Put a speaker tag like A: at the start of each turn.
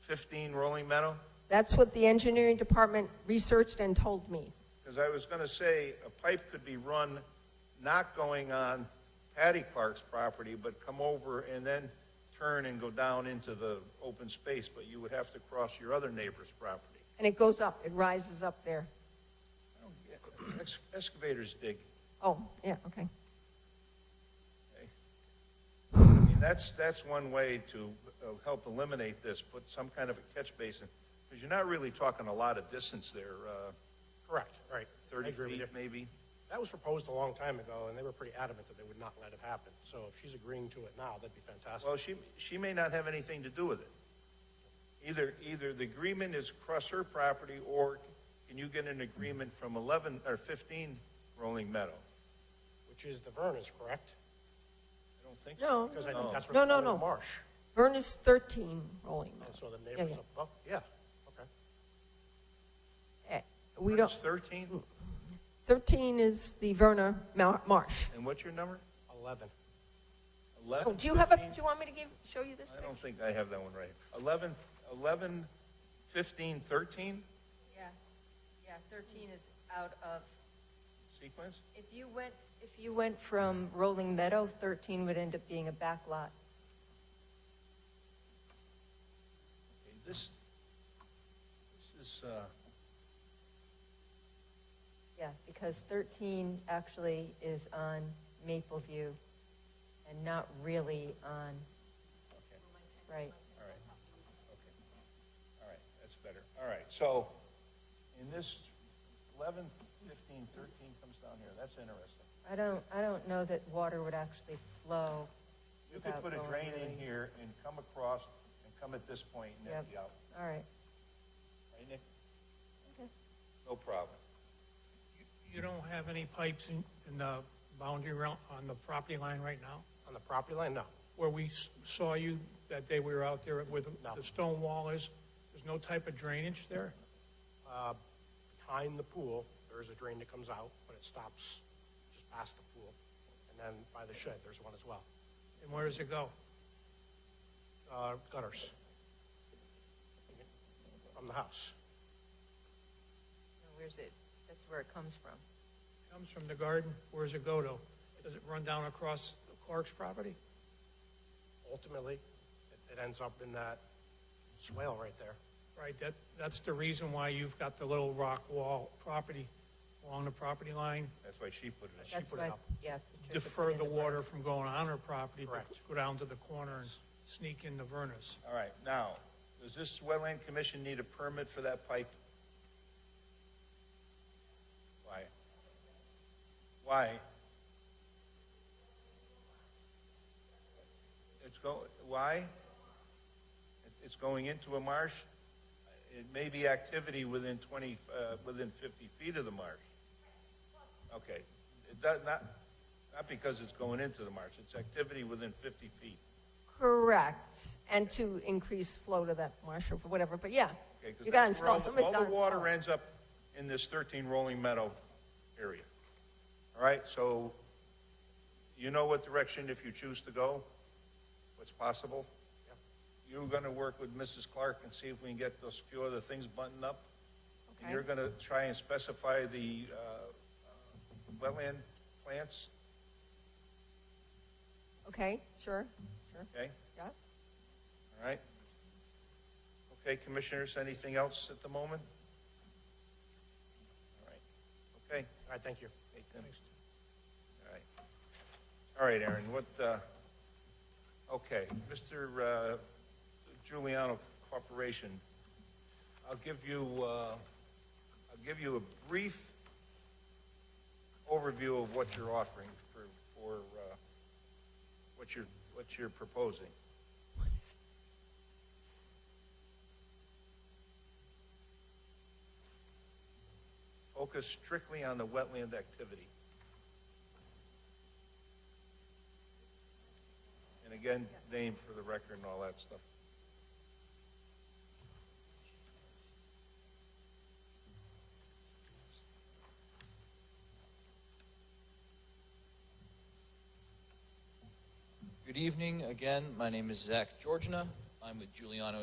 A: 15 Rolling Meadow?
B: That's what the engineering department researched and told me.
A: Because I was going to say, a pipe could be run not going on Patty Clark's property, but come over and then turn and go down into the open space, but you would have to cross your other neighbor's property.
B: And it goes up, it rises up there.
A: I don't get- ex- Excavators dig.
B: Oh, yeah, okay.
A: I mean, that's, that's one way to uh, help eliminate this, put some kind of a catch basin, because you're not really talking a lot of distance there, uh,
C: Correct, right. I
A: 30
C: agree with
A: feet
C: you.
A: maybe?
C: That was proposed a long time ago, and they were pretty adamant that they would not let it happen. So if she's agreeing to it now, that'd be fantastic.
A: Well, she, she may not have anything to do with it. Either, either the agreement is across her property, or can you get an agreement from 11, or 15 Rolling Meadow?
C: Which is the Vernon's, correct?
A: I don't think so.
B: No,
C: Because I think that's
B: No,
C: where
B: no,
C: they're calling
B: no.
C: it marsh.
B: Vern is 13 rolling Meadow.
C: And so the
B: Yeah,
C: neighbors
B: yeah.
C: up above, yeah, okay.
B: Eh, We don't,
A: It's 13,
B: 13 is the Verna Mar- Marsh.
A: and what's your number?
C: 11.
B: Oh,
A: 11?
B: do you have a, do
A: 15?
B: you want me to give, show you this
A: I
B: picture?
A: don't think I have that one right. 11, 11, 15, 13
D: Yeah, yeah, 13 is out of,
A: sequence?
D: if you went, if you went from Rolling Meadow, 13 would end up being a back lot.
A: Okay, This, this is, uh,
D: Yeah, because 13 actually is on Maple View and not really on,
A: okay.
D: right.
A: All right, okay. All right, that's better. All right, so in this 11, 15, 13 comes down here, that's interesting.
D: I don't, I don't know that water would actually flow
A: You could
D: without
A: put a
D: going
A: drain in
D: really-
A: here and come across and come at this point and then
D: Yep.
A: be out.
D: All right.
A: Right, Nick?
D: Okay.
A: No problem.
E: You don't have any pipes in, in the boundary round, on the property line right now?
C: On the property line, no.
E: Where we s- saw you that day we were out there with
C: No.
E: the stone wall is, there's no type of drainage there?
C: Uh, Behind the pool, there is a drain that comes out, but it stops just past the pool. And then by the shed, there's one as well.
E: And where does it go?
C: Uh, Gutters. From the house.
D: Now, Where's it, that's where it comes from.
E: Comes from the garden, where does it go to? Does it run down across Clark's property?
C: Ultimately, it- it ends up in that swale right there.
E: Right, that, that's the reason why you've got the little rock wall property along the property line,
A: That's why she put it in.
D: That's
C: put it
D: why,
C: up.
D: yeah. Patricia put
E: defer
D: in
E: the
D: berm.
E: water from going on her property, but
C: Correct.
E: go down to the corner and sneak into Vernus.
A: All right, now, does this wetland commission need a permit for that pipe? Why? Why? It's go, why? It- It's going into a marsh? It may be activity within twenty, uh, within fifty feet of the marsh. Okay, it does not, not because it's going into the marsh, it's activity within fifty feet.
B: Correct, and to increase flow to that marsh or whatever, but yeah.
A: Okay, 'cause
B: You gotta
A: that's where all
B: install,
A: the-
B: somebody's gotta
A: All
B: install.
A: the water
B: it.
A: ends up in this 13 Rolling Meadow area. All right, so you know what direction, if you choose to go, what's possible? You're going to work with Mrs. Clark and see if we can get those few other things buttoned up. And
B: Okay.
A: you're going to try and specify the uh, uh, wetland plants,
B: Okay, sure, sure,
A: okay?
B: yeah.
A: All right? Okay, commissioners, anything else at the moment? All right, okay.
C: All right, thank you.
A: Hey, Tim. All right. All right, Aaron, what, uh, okay, Mr. uh, Giuliano Corporation, I'll give you, uh, I'll give you a brief overview of what you're offering for, for, uh, what you're, what you're proposing. Focus strictly on the wetland activity. And again, name for the record and all that stuff.
F: Good evening again. My name is Zach Georgina. I'm with Giuliano